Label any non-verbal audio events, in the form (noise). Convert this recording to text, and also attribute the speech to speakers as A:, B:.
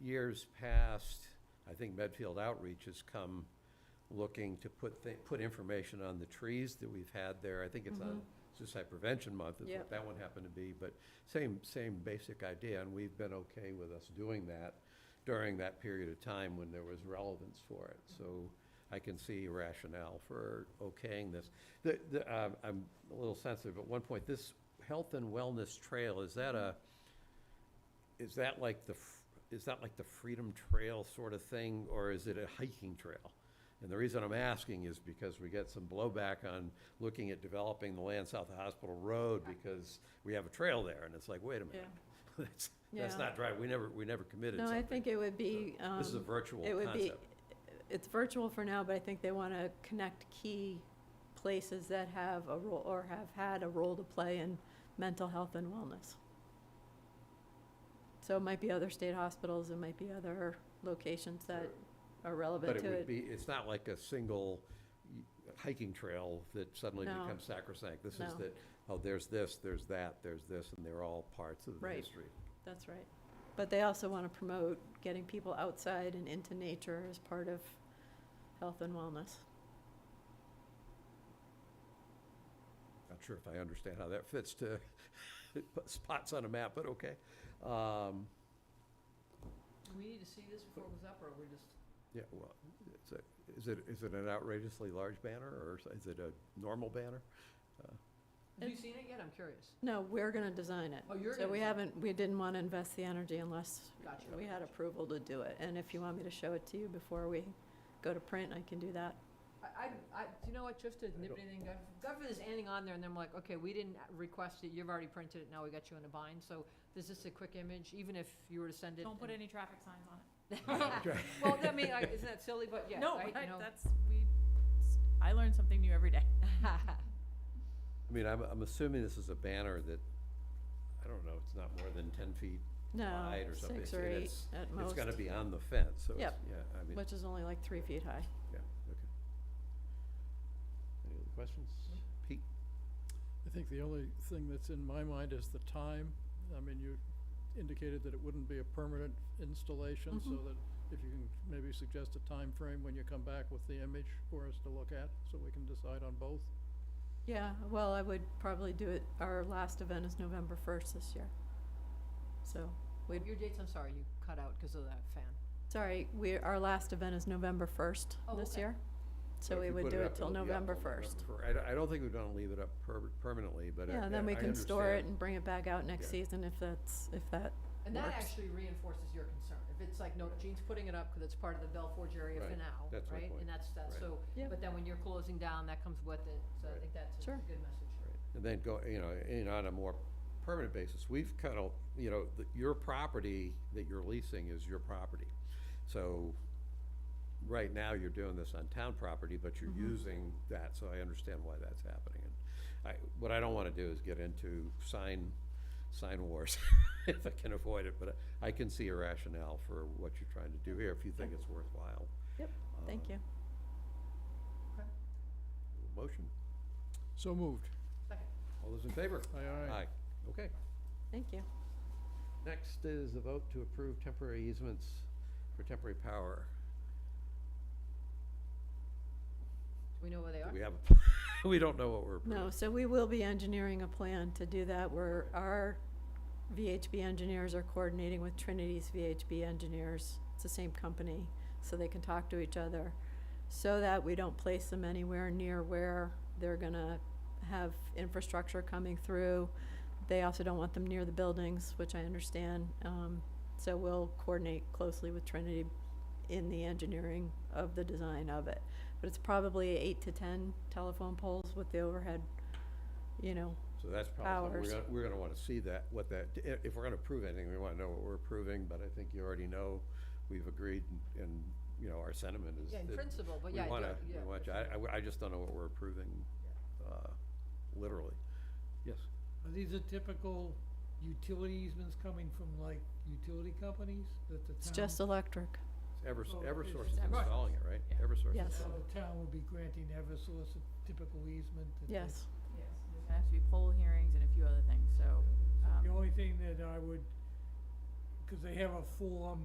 A: years past, I think Medfield Outreach has come looking to put, thi- put information on the trees that we've had there. I think it's on Suicide Prevention Month is
B: Yep.
A: what that one happened to be, but same, same basic idea, and we've been okay with us doing that during that period of time when there was relevance for it. So I can see rationale for okaying this. The, the, uh, I'm a little sensitive, at one point, this Health and Wellness Trail, is that a, is that like the, f- is that like the Freedom Trail sort of thing, or is it a hiking trail? And the reason I'm asking is because we get some blowback on looking at developing the land south of Hospital Road because we have a trail there, and it's like, wait a minute. (laughs) That's, that's
B: Yeah.
A: not right, we never, we never committed
B: No,
A: something.
B: I think it would be,
A: This is a
B: um,
A: virtual
B: it would be,
A: concept.
B: it's virtual for now, but I think they want to connect key places that have a role, or have had a role to play in mental health and wellness. So it might be other state hospitals, it might be other locations that are relevant
A: But it
B: to
A: would
B: it.
A: be, it's not like a single y- hiking trail that suddenly
B: No.
A: becomes sacrosanct. This is
B: No.
A: that, oh, there's this, there's that, there's this, and they're all parts of the
B: Right.
A: history.
B: That's right. But they also want to promote getting people outside and into nature as part of health and wellness.
A: Not sure if I understand how that fits to (laughs) put spots on a map, but okay. Um,
C: Do we need to see this before it goes up, or we're just,
A: Yeah, well, it's a- is it, is it an outrageously large banner, or is- is it a normal banner?
C: have you
B: It's-
C: seen it yet? I'm curious.
B: No, we're going to design it.
C: Oh, you're
B: So
C: gonna
B: we
C: design it.
B: haven't, we didn't want to invest the energy unless
C: Gotcha.
B: we had approval to do it. And if you want me to show it to you before we go to print, I can do that.
C: I, I, I, do you know what, just to nip
A: don't-
C: anything, God God forbid there's anything on there, and then I'm like, okay, we didn't request it, you've already printed it, now we got you in a bind, so there's just a quick image, even if you were to send it.
D: Don't
C: (laughs)
D: put
C: and-
D: any traffic signs on it.
C: Well, I mean, like, isn't that silly, but yeah,
D: No,
C: right,
D: I-
C: you know.
D: that's, we, I learn something new every day.
A: I mean, I'm, I'm assuming this is a banner that, I don't know, it's not more than ten feet
B: No,
A: wide or something.
B: six
A: so
B: or eight
A: it's-
B: at
A: It's
B: most,
A: gotta be on the fence, so it's,
B: Yep.
A: yeah, I mean,
B: which is only like three feet high.
A: yeah, okay. Any other questions?
B: Mm-hmm.
A: Pete?
E: I think the only thing that's in my mind is the time. I mean, you indicated that it wouldn't be a permanent installation, so
B: Mhm.
E: that if you can maybe suggest a time frame when you come back with the image for us to look at, so we can decide on both.
B: Yeah, well, I would probably do it, our last event is November first this year. So,
C: Wait, Your dates, I'm sorry, you cut out because of that fan.
B: sorry, we, our last event is November first
C: Oh,
B: this
C: okay.
B: year.
A: But
B: So
A: if
B: we
A: you
B: would
A: put
B: do
A: up,
B: it till
A: it'll be up
B: November
A: till
B: first.
A: fir- I, don't- I don't think we'd wanna leave it up per- permanently, but uh, I, I I
B: Yeah, and then we can store it
A: understand.
B: and bring it back out next
A: Yeah.
B: season if that's, if that,
C: And that
B: Works.
C: actually reinforces your concern, if it's like, no, Gene's putting it up because it's part of the Bell Forge area for
A: Right.
C: now,
A: That's my
C: right?
A: point.
C: And that's, that's,
A: Right.
C: so,
B: Yep.
C: but then when you're closing down, that comes with it, so I
A: Right.
C: think that's a
B: Sure.
C: a good message.
A: And then go, you know, and on a more permanent basis, we've kind of, you know, the- your property that you're leasing is your property. So, right now, you're doing this on town property, but you're
B: Mm-hmm.
A: using that, so I understand why that's happening. And I, what I don't wanna do is get into sign, sign wars, (laughs) if I can avoid it, but I can see a rationale for what you're trying to do here, if you think it's worthwhile. Uh,
B: Yep, thank
A: Um,
B: you.
A: Motion,
E: So moved.
C: Second.
A: all those in favor?
E: Aye, aye.
A: Aye, okay.
B: Thank you.
A: Next is a vote to approve temporary easements for temporary power.
C: Do we know where they
A: Do
C: are?
A: We have, (laughs) we don't know what we're
B: No,
A: approving.
B: so we will be engineering a plan to do that, where our VHB engineers are coordinating with Trinity's VHB engineers. It's the same company, so they can talk to each other, so that we don't place them anywhere near where they're gonna have infrastructure coming through. They also don't want them near the buildings, which I understand, um, so we'll coordinate closely with Trinity in the engineering of the design of it. But it's probably eight to ten telephone poles with the overhead, you know,
A: So that's probably, something
B: Powers.
A: we're gonna, we're gonna wanna see that, what that, i- if we're gonna approve anything, we wanna know what we're approving, but I think you already know, we've agreed, and, and, you know, our sentiment is
C: Yeah, in
A: that
C: principle, but
A: we
C: yeah, I do-
A: wanna, we
C: yeah.
A: want, you- I, I w- I just don't know what we're approving, uh, literally. Yes,
F: Are these the typical utility easements coming from like utility companies that the town?
B: it's just electric.
A: Evers,
F: Oh,
A: Eversource is
F: it's Eversource.
A: installing it, right?
D: Yeah.
A: Eversource. is
B: Yes.
F: So
A: installing
F: the town would be granting Eversource a typical easement? that they-
B: Yes,
D: Yes, there's gonna have to be poll hearings and a few other things, so, um,
F: The only thing that I would, because they have a form